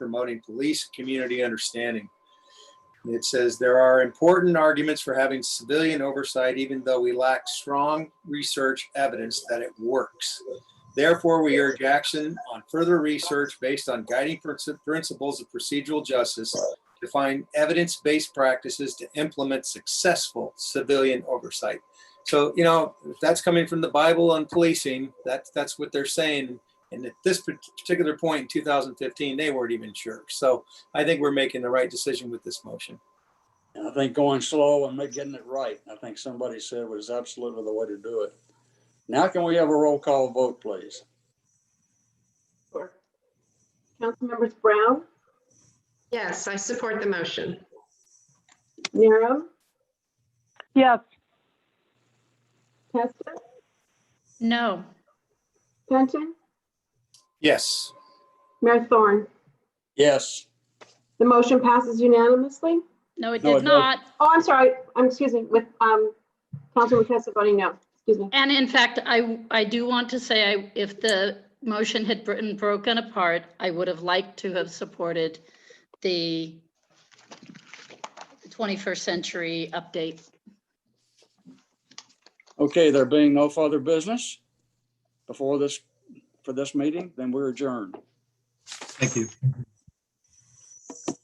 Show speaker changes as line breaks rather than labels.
promoting police community understanding. It says there are important arguments for having civilian oversight, even though we lack strong research evidence that it works. Therefore, we urge action on further research based on guiding princi- principles of procedural justice to find evidence-based practices to implement successful civilian oversight. So, you know, if that's coming from the Bible on policing, that's, that's what they're saying. And at this particular point in 2015, they weren't even sure. So I think we're making the right decision with this motion.
And I think going slow and ma- getting it right, I think somebody said was absolutely the way to do it. Now can we have a roll call vote, please?
Councilmembers Brown,
Yes, I support the motion.
Nero,
Yes.
Testa,
No.
Penton,
Yes.
Mayor Thorne.
Yes,
The motion passes unanimously.
No, it
No, it
did
doesn't.
not.
Oh, I'm sorry, I'm, excuse me, with, um, Councilwoman Testa voting no, excuse me.
And in fact, I, I do want to say, I if the motion had been broken apart, I would have liked to have supported the 21st century update.
okay, there being no further business before this, for this meeting, then we're adjourned.
Thank you.